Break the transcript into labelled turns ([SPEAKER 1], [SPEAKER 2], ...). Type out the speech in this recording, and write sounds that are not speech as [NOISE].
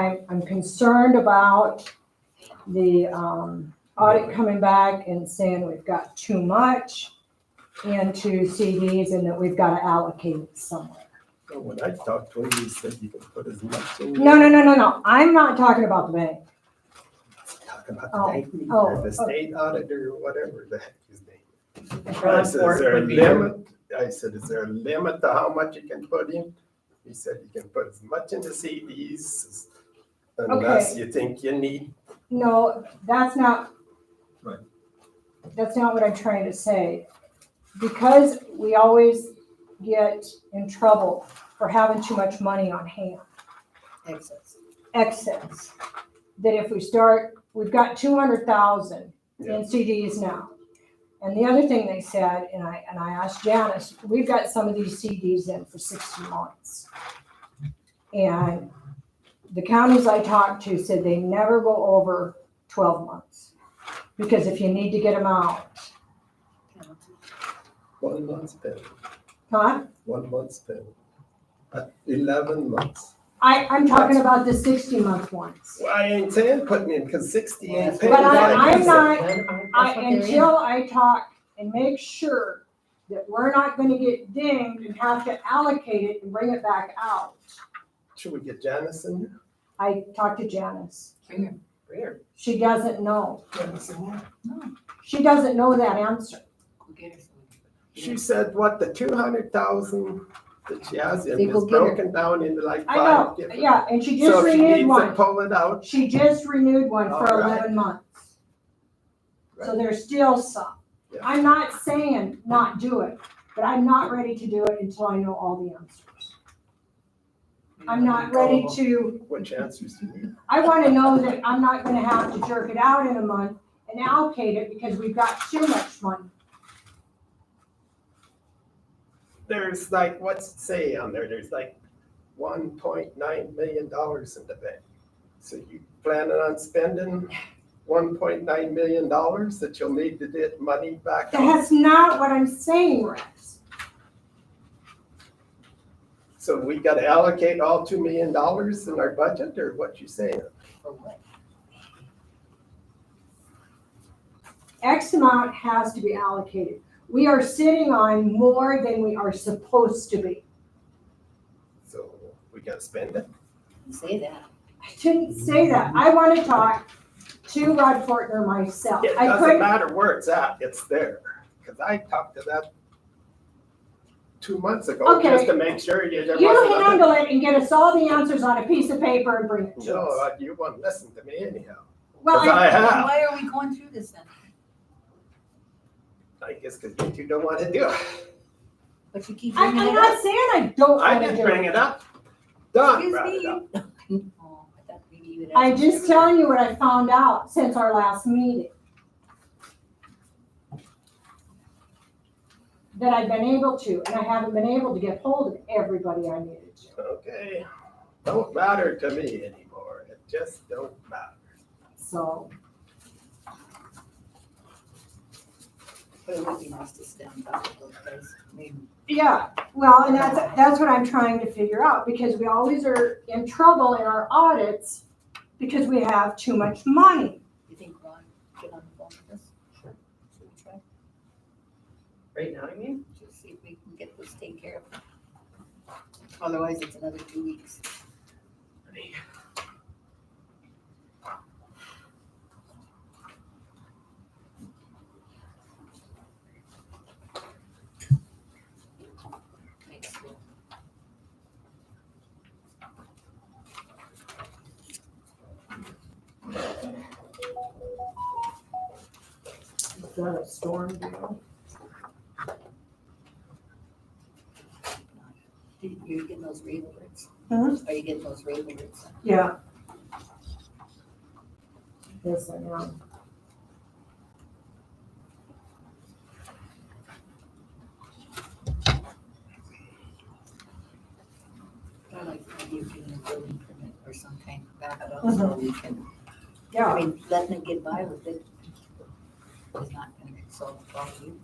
[SPEAKER 1] I'm, I'm concerned about the, um, audit coming back and saying we've got too much into CDs and that we've got to allocate it somewhere.
[SPEAKER 2] But When I talked to him, he said you can put as much in.
[SPEAKER 1] No, no, no, no, no. I'm not talking about the bank.
[SPEAKER 2] Talk about
[SPEAKER 1] Oh,
[SPEAKER 2] the bank meeting
[SPEAKER 1] oh,
[SPEAKER 2] or
[SPEAKER 1] oh.
[SPEAKER 2] the state auditor, or whatever the heck his name. is. I
[SPEAKER 3] Ron
[SPEAKER 2] said,
[SPEAKER 3] Fort
[SPEAKER 2] is there a
[SPEAKER 3] would be-
[SPEAKER 2] limit? I said, is there a limit to how much you can put in? He said, you can put as much in the CDs as- unless you think you need.
[SPEAKER 1] No, that's not.
[SPEAKER 2] Right.
[SPEAKER 1] That's not what I'm trying to say. Because we always get in trouble for having too much money on hand.
[SPEAKER 3] Excess.
[SPEAKER 1] excess. That if we start, we've got two hundred thousand
[SPEAKER 2] Yeah.
[SPEAKER 1] in CDs now. And the other thing they said, and I, and I asked Janice, we've got some of these CDs in for sixty months. And the counties I talked to said they never go over twelve months. Because if you need to get them out,
[SPEAKER 2] One month's bill,
[SPEAKER 1] huh?
[SPEAKER 2] one month's bill. Uh, Eleven months.
[SPEAKER 1] I, I'm talking about the sixty month ones.
[SPEAKER 2] Well, I ain't saying putting in, cause sixty ain't
[SPEAKER 3] But
[SPEAKER 2] paying.
[SPEAKER 1] But I,
[SPEAKER 2] like
[SPEAKER 1] I'm
[SPEAKER 2] said.
[SPEAKER 1] not, I,
[SPEAKER 3] I,
[SPEAKER 1] until I talk and make sure that we're not gonna get dinged and have to allocate it and bring it back out.
[SPEAKER 2] Should we get Janice in? here?
[SPEAKER 1] I talked to Janice.
[SPEAKER 3] Weird.
[SPEAKER 1] She doesn't know.
[SPEAKER 2] Janice in here?
[SPEAKER 1] She doesn't know that answer.
[SPEAKER 2] She said, what, the two hundred thousand that she has in
[SPEAKER 3] They
[SPEAKER 2] is
[SPEAKER 3] go get her.
[SPEAKER 2] broken down into like
[SPEAKER 1] I
[SPEAKER 2] five
[SPEAKER 1] know,
[SPEAKER 2] different.
[SPEAKER 1] yeah, and she just
[SPEAKER 2] So if she
[SPEAKER 1] renewed
[SPEAKER 2] needs to
[SPEAKER 1] one.
[SPEAKER 2] pull it out,
[SPEAKER 1] She just renewed one for
[SPEAKER 2] All right.
[SPEAKER 1] eleven months. So
[SPEAKER 2] Oh, Right.
[SPEAKER 1] there's still some.
[SPEAKER 2] Yeah.
[SPEAKER 1] I'm not saying not do it, but I'm not ready to do it until I know all the answers. I'm not ready to
[SPEAKER 2] which answers do you need?
[SPEAKER 1] I want to know that I'm not going to have to jerk it out in a month and allocate it because we've got too much money.
[SPEAKER 2] There's like, what's it say on there? There's like one point nine million dollars in the bank. So you planning on spending one point nine million dollars that you'll need to get money back? out?
[SPEAKER 1] That's not what I'm saying, Rex.
[SPEAKER 2] So we gotta allocate all two million dollars in our budget or what you saying?
[SPEAKER 1] X amount has to be allocated. We are sitting on more than we are supposed to be.
[SPEAKER 2] So we gotta spend it?
[SPEAKER 3] Say that.
[SPEAKER 1] I didn't say that. I want to talk to Rod Fortner myself.
[SPEAKER 2] It
[SPEAKER 1] I
[SPEAKER 2] doesn't
[SPEAKER 1] couldn't,
[SPEAKER 2] matter where it's at, it's there, because I talked to that two months ago,
[SPEAKER 1] Okay.
[SPEAKER 2] just to make sure you, there
[SPEAKER 1] you
[SPEAKER 2] wasn't.
[SPEAKER 1] handle it and get us all the answers on a piece of paper and bring it to
[SPEAKER 2] No,
[SPEAKER 1] us.
[SPEAKER 2] uh, you wouldn't listen to me anyhow,
[SPEAKER 1] Well,
[SPEAKER 2] because
[SPEAKER 1] I-
[SPEAKER 2] I have,
[SPEAKER 3] Why are we going through this then?
[SPEAKER 2] I guess because you don't want to do it.
[SPEAKER 3] But you keep
[SPEAKER 1] I,
[SPEAKER 3] bringing
[SPEAKER 1] I'm
[SPEAKER 3] it up.
[SPEAKER 1] not saying I don't
[SPEAKER 2] I
[SPEAKER 1] want to
[SPEAKER 2] didn't
[SPEAKER 1] do it.
[SPEAKER 2] bring it up. Don
[SPEAKER 3] Excuse
[SPEAKER 2] brought it
[SPEAKER 3] me.
[SPEAKER 2] up.
[SPEAKER 3] [LAUGHS] Oh, I thought maybe you would
[SPEAKER 1] I'm
[SPEAKER 3] ask
[SPEAKER 1] just
[SPEAKER 3] everybody.
[SPEAKER 1] telling you what I found out since our last meeting. That I've been able to, and I haven't been able to get hold of everybody I needed to.
[SPEAKER 2] Okay, don't matter to me anymore, it just don't matter.
[SPEAKER 1] So,
[SPEAKER 3] But it would be nice to stand up to those guys. I mean,
[SPEAKER 1] yeah, well, and that's, that's what I'm trying to figure out, because we always are in trouble in our audits because we have too much money.
[SPEAKER 3] you think Ron get on the phone with us? Sure. Should we try?
[SPEAKER 4] Right now, I mean?
[SPEAKER 3] Just see if we can get this taken care of. Otherwise, it's another two weeks. Makes sense.
[SPEAKER 4] Is that a storm deal?
[SPEAKER 3] Did- You're getting those rewards?
[SPEAKER 1] Huh?
[SPEAKER 3] Are you getting those rewards?
[SPEAKER 1] Yeah. Yes, I know.
[SPEAKER 3] I like the idea of getting a building permit or some kind of backup so we can, I
[SPEAKER 1] Yeah,
[SPEAKER 3] mean, letting them get by with it is not gonna solve the problem.